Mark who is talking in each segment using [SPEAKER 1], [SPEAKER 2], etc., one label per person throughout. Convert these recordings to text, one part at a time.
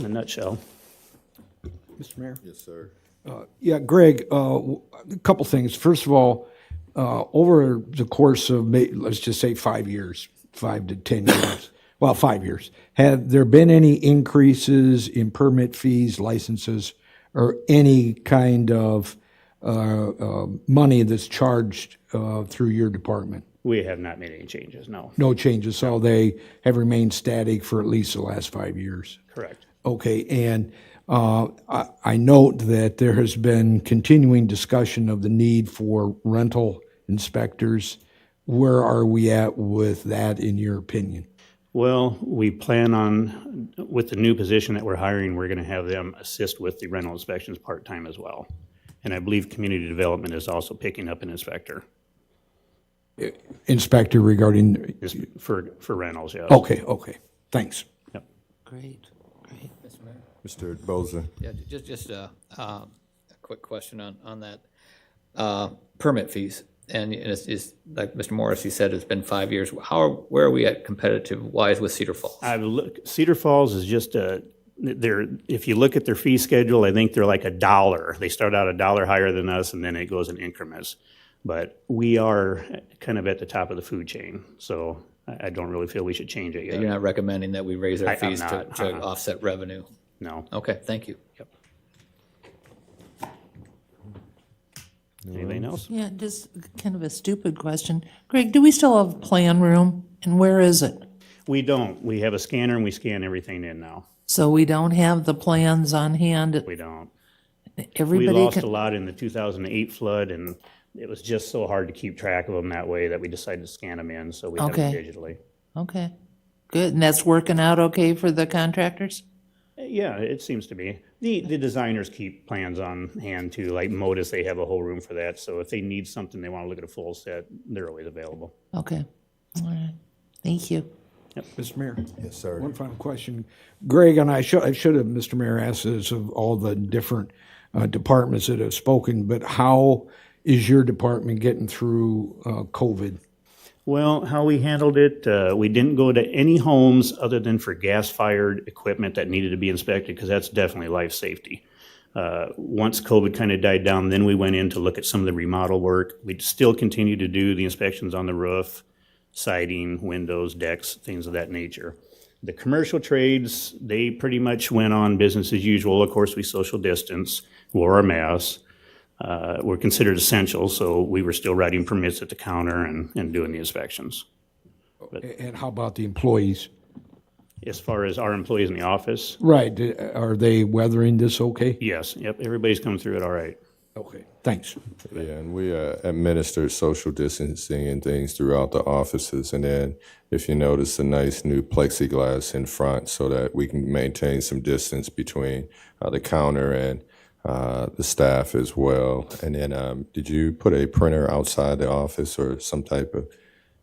[SPEAKER 1] in a nutshell.
[SPEAKER 2] Mr. Mayor?
[SPEAKER 3] Yes, sir.
[SPEAKER 2] Yeah, Greg, uh, w- a couple things. First of all, uh, over the course of, may- let's just say five years, five to 10 years, well, five years, have there been any increases in permit fees, licenses, or any kind of uh, uh, money that's charged uh, through your department?
[SPEAKER 1] We have not made any changes, no.
[SPEAKER 2] No changes, so they have remained static for at least the last five years?
[SPEAKER 1] Correct.
[SPEAKER 2] Okay, and uh, I I note that there has been continuing discussion of the need for rental inspectors. Where are we at with that, in your opinion?
[SPEAKER 1] Well, we plan on, with the new position that we're hiring, we're going to have them assist with the rental inspections part-time as well. And I believe community development is also picking up an inspector
[SPEAKER 2] Inspector regarding,
[SPEAKER 1] is for, for rentals, yes.
[SPEAKER 2] okay, okay, thanks.
[SPEAKER 1] Yep.
[SPEAKER 4] Great, great.
[SPEAKER 3] Mr. Boza.
[SPEAKER 5] Yeah, ju- just, just a, a quick question on, on that. Uh, Permit fees, and it's, it's, like Mr. Morris, he said it's been five years. How, are where are we at competitive wise with Cedar Falls?
[SPEAKER 1] I look, Cedar Falls is just a, they're, if you look at their fee schedule, I think they're like a dollar. They start out a dollar higher than us and then it goes in increments. But we are kind of at the top of the food chain, so I, I don't really feel we should change it yet.
[SPEAKER 5] You're not recommending that we raise our fees to,
[SPEAKER 1] not, Uh-huh.
[SPEAKER 5] to offset revenue?
[SPEAKER 1] No.
[SPEAKER 5] Okay, thank you.
[SPEAKER 1] Anything else?
[SPEAKER 4] Yeah, just kind of a stupid question. Greg, do we still have a plan room? And where is it?
[SPEAKER 1] We don't. We have a scanner and we scan everything in now.
[SPEAKER 4] So we don't have the plans on hand.
[SPEAKER 1] We don't. We
[SPEAKER 4] Everybody
[SPEAKER 1] lost a
[SPEAKER 4] can,
[SPEAKER 1] lot in the 2008 flood and it was just so hard to keep track of them that way that we decided to scan them in, so we have them
[SPEAKER 4] Okay.
[SPEAKER 1] digitally.
[SPEAKER 4] okay, good. And that's working out okay for the contractors?
[SPEAKER 1] Yeah, it seems to be. The, the designers keep plans on hand too, like Modus, they have a whole room for that. So if they need something, they want to look at a full set, they're always available.
[SPEAKER 4] Okay, all right. Thank you.
[SPEAKER 2] Mr. Mayor?
[SPEAKER 3] Yes, sir.
[SPEAKER 2] One final question. Greg, and I should, I should have, Mr. Mayor, asked this of all the different uh, departments that have spoken, but how is your department getting through uh, COVID?
[SPEAKER 1] Well, how we handled it, uh, we didn't go to any homes other than for gas fired equipment that needed to be inspected because that's definitely life safety. Uh, once COVID kind of died down, then we went in to look at some of the remodel work. We'd still continue to do the inspections on the roof, siding, windows, decks, things of that nature. The commercial trades, they pretty much went on business as usual. Of course, we social distance, wore our masks uh, were considered essential, so we were still writing permits at the counter and, and doing the inspections.
[SPEAKER 2] A- And how about the employees?
[SPEAKER 1] As far as our employees in the office,
[SPEAKER 2] Right, d- are they weathering this okay?
[SPEAKER 1] yes, yep, everybody's come through it all right.
[SPEAKER 2] Okay, thanks.
[SPEAKER 3] Yeah, and we uh, administer social distancing and things throughout the offices. And then, if you notice, a nice new plexiglass in front so that we can maintain some distance between uh, the counter and uh, the staff as well. And then, um, did you put a printer outside the office or some type of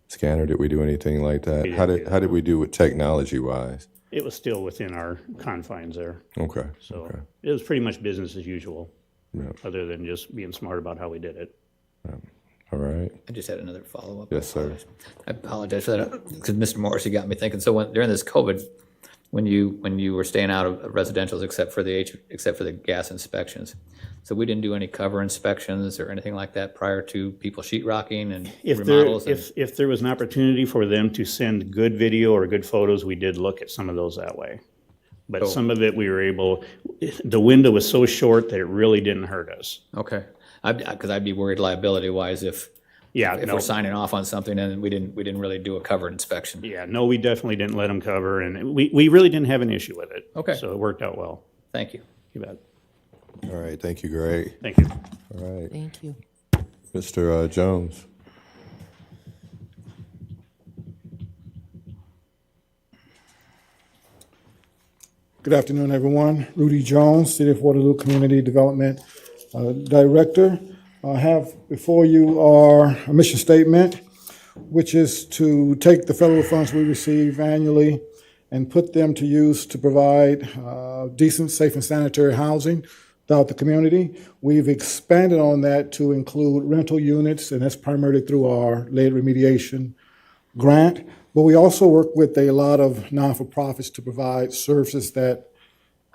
[SPEAKER 3] scanner? Did we do anything like that? How did how did we do with technology wise?
[SPEAKER 1] It was still within our confines there,
[SPEAKER 3] Okay.
[SPEAKER 1] so it was pretty much business as usual, other than just being smart about how we did it.
[SPEAKER 3] All right.
[SPEAKER 5] I just had another follow-up.
[SPEAKER 3] Yes, sir.
[SPEAKER 5] I apologize for that, because Mr. Morrissey got me thinking. So when, during this COVID, when you, when you were staying out of residential's except for the, H except for the gas inspections, so we didn't do any cover inspections or anything like that prior to people sheetrocking and
[SPEAKER 1] If there,
[SPEAKER 5] remodels? and-
[SPEAKER 1] if, if there was an opportunity for them to send good video or good photos, we did look at some of those that way. But some of it, we were able, the window was so short that it really didn't hurt us.
[SPEAKER 5] Okay, I'd, because I'd be worried liability-wise if,
[SPEAKER 1] Yeah,
[SPEAKER 5] if
[SPEAKER 1] no.
[SPEAKER 5] we're signing off on something and we didn't, we didn't really do a cover inspection.
[SPEAKER 1] Yeah, no, we definitely didn't let them cover, and we, we really didn't have an issue with it.
[SPEAKER 5] Okay.
[SPEAKER 1] So it worked out well.
[SPEAKER 5] Thank you.
[SPEAKER 1] You bet.
[SPEAKER 3] All right. Thank you, Greg.
[SPEAKER 1] Thank you.
[SPEAKER 3] All right,
[SPEAKER 4] Thank you.
[SPEAKER 3] Mr. Uh, Jones.
[SPEAKER 6] Good afternoon, everyone. Rudy Jones, City of Waterloo Community Development uh, Director. I have before you our mission statement, which is to take the federal funds we receive annually and put them to use to provide uh, decent, safe, and sanitary housing throughout the community. We've expanded on that to include rental units, and that's primarily through our lead remediation grant, but we also work with a lot of non-for-profits to provide services that